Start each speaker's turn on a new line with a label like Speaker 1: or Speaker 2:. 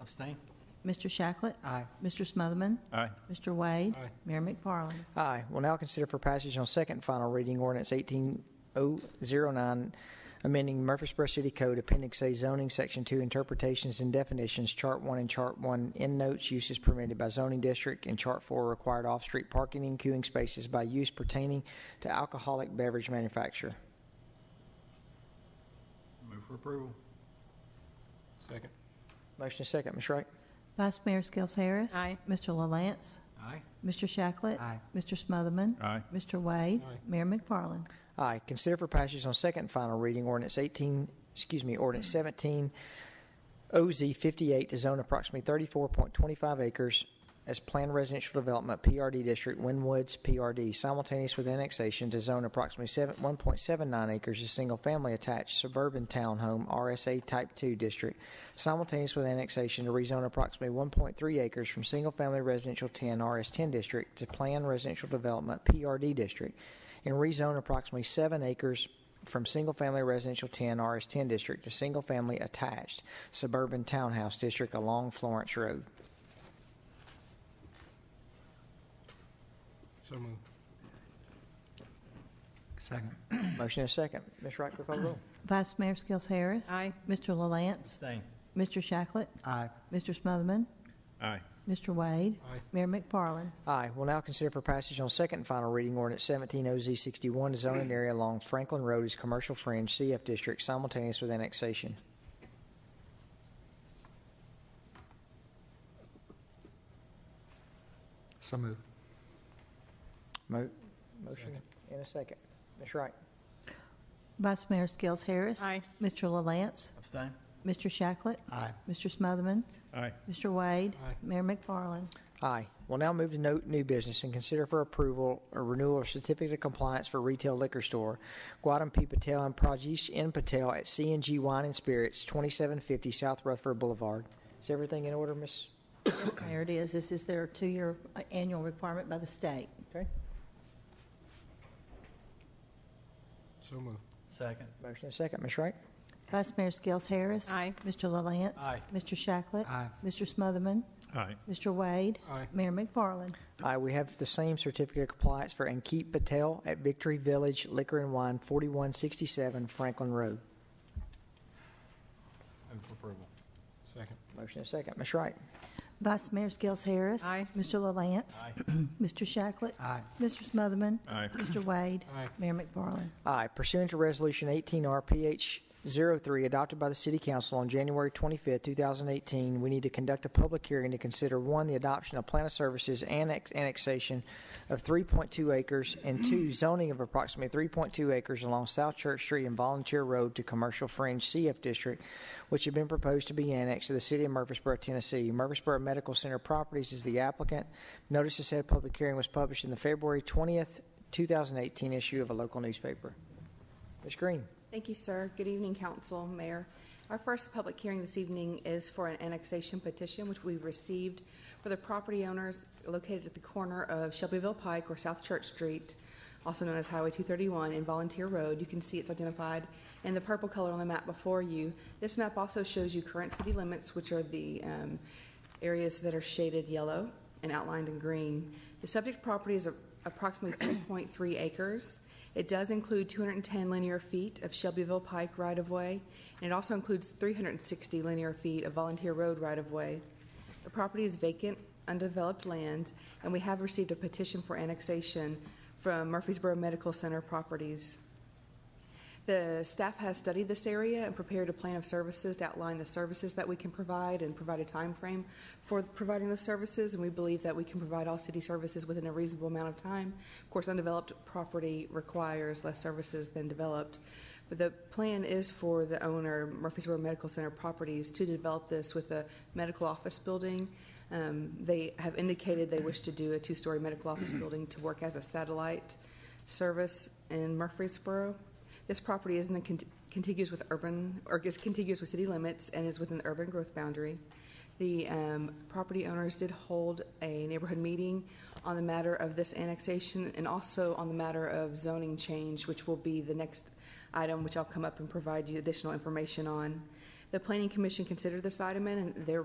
Speaker 1: Abstain?
Speaker 2: Mr. Shacklet,
Speaker 1: Aye.
Speaker 2: Mr. Smotherman,
Speaker 3: Aye.
Speaker 2: Mr. Wade,
Speaker 1: Aye.
Speaker 2: Mayor McFarland.
Speaker 4: Aye. We'll now consider for passage on second and final reading ordinance 18009, amending Murfreesboro City Code Appendix A zoning, Section 2 interpretations and definitions, Chart 1 and Chart 1 end notes, uses permitted by zoning district, and Chart 4 required off-street parking and queuing spaces by use pertaining to alcoholic beverage manufacturer.
Speaker 1: Move for approval. Second?
Speaker 4: Motion is second, Ms. Wright.
Speaker 2: Vice Mayor Skels Harris.
Speaker 5: Aye.
Speaker 2: Mr. LaLance,
Speaker 1: Aye.
Speaker 2: Mr. Shacklet.
Speaker 1: Aye.
Speaker 2: Mr. Smotherman.
Speaker 3: Aye.
Speaker 2: Mr. Wade.
Speaker 1: Aye.
Speaker 2: Mayor McFarland.
Speaker 4: Aye. Consider for passage on second and final reading ordinance 18, excuse me, ordinance 17, OZ 58 to zone approximately 34.25 acres as planned residential development, PRD district, Winwoods, PRD, simultaneous with annexation to zone approximately 7, 1.79 acres as single-family attached suburban townhome, RSA Type 2 district, simultaneous with annexation to rezone approximately 1.3 acres from single-family residential 10, RS10 district, to planned residential development, PRD district, and rezone approximately 7 acres from single-family residential 10 RS10 district to single-family attached suburban townhouse district along Florence Road.
Speaker 1: So move.
Speaker 4: Second. Motion is second. Ms. Wright, clerk call the roll.
Speaker 2: Vice Mayor Skels Harris.
Speaker 5: Aye.
Speaker 2: Mr. LaLance,
Speaker 3: Abstain.
Speaker 2: Mr. Shacklet,
Speaker 4: Aye.
Speaker 2: Mr. Smotherman,
Speaker 3: Aye.
Speaker 2: Mr. Wade.
Speaker 1: Aye.
Speaker 2: Mayor McFarland.
Speaker 4: Aye. We'll now consider for passage on second and final reading ordinance 17 OZ 61 to zone an area along Franklin Road as commercial fringe CF district simultaneous with annexation.
Speaker 1: So move.
Speaker 4: Mo- Motion and a second. Ms. Wright.
Speaker 2: Vice Mayor Skels Harris.
Speaker 5: Aye.
Speaker 2: Mr. LaLance,
Speaker 3: Abstain?
Speaker 2: Mr. Shacklet,
Speaker 1: Aye.
Speaker 2: Mr. Smotherman,
Speaker 3: Aye.
Speaker 2: Mr. Wade.
Speaker 1: Aye.
Speaker 2: Mayor McFarland.
Speaker 4: Aye. We'll now move to note new business and consider for approval a renewal of certificate of compliance for retail liquor store, Guadam P. Patel and Prajesh N. Patel at CNG Wine and Spirits, 2750 South Rutherford Boulevard. Is everything in order, Miss?
Speaker 2: Yes, Mayor, it is. This is their two-year uh, annual requirement by the state.
Speaker 4: Okay.
Speaker 1: So move.
Speaker 3: Second?
Speaker 4: Motion and second. Ms. Wright?
Speaker 2: Vice Mayor Skels Harris.
Speaker 5: Aye.
Speaker 2: Mr. LaLance.
Speaker 1: Aye.
Speaker 2: Mr. Shacklet.
Speaker 1: Aye.
Speaker 2: Mr. Smotherman.
Speaker 3: Aye.
Speaker 2: Mr. Wade.
Speaker 1: Aye.
Speaker 2: Mayor McFarland.
Speaker 4: Aye, we have the same certificate of compliance for Ankit Patel at Victory Village Liquor and Wine, 4167 Franklin Road.
Speaker 1: Move for approval. Second?
Speaker 4: Motion and second. Ms. Wright?
Speaker 2: Vice Mayor Skels Harris.
Speaker 5: Aye.
Speaker 2: Mr. LaLance. Mr. Shacklet.
Speaker 1: Aye.
Speaker 2: Mr. Smotherman.
Speaker 3: Aye.
Speaker 2: Mr. Wade.
Speaker 1: Aye.
Speaker 2: Mayor McFarland.
Speaker 4: Aye. Pursuant to Resolution 18RPH03, adopted by the City Council on January 25, 2018, we need to conduct a public hearing to consider, one, the adoption of plan of services annex annexation of 3.2 acres, and two, zoning of approximately 3.2 acres along South Church Street and Volunteer Road to Commercial Fringe CF District, which had been proposed to be annexed to the City of Murfreesboro, Tennessee. Murfreesboro Medical Center Properties is the applicant. Notice of said public hearing was published in the February 20th, 2018 issue of a local newspaper. Ms. Green,
Speaker 6: Thank you, sir. Good evening, Council, Mayor. Our first public hearing this evening is for an annexation petition which we've received for the property owners located at the corner of Shelbyville Pike or South Church Street, also known as Highway 231 and Volunteer Road. You can see it's identified in the purple color on the map before you. This map also shows you current city limits, which are the um, areas that are shaded yellow and outlined in green. The subject property is a- approximately 3.3 acres. It does include 210 linear feet of Shelbyville Pike right-of-way, and it also includes 360 linear feet of Volunteer Road right-of-way. The property is vacant, undeveloped land, and we have received a petition for annexation from Murfreesboro Medical Center Properties. The staff has studied this area and prepared a plan of services to outline the services that we can provide and provide a time frame for providing those services. And we believe that we can provide all city services within a reasonable amount of time. Of course, undeveloped property requires less services than developed. But the plan is for the owner, Murfreesboro Medical Center Properties, to develop this with a medical office building. Um, they have indicated they wish to do a two-story medical office building to work as a satellite service in Murfreesboro. This property is in the cont- contiguous with urban, or is contiguous with city limits and is within the urban growth boundary. The um, property owners did hold a neighborhood meeting on the matter of this annexation and also on the matter of zoning change, which will be the next item, which I'll come up and provide you additional information on. The Planning Commission considered this item and their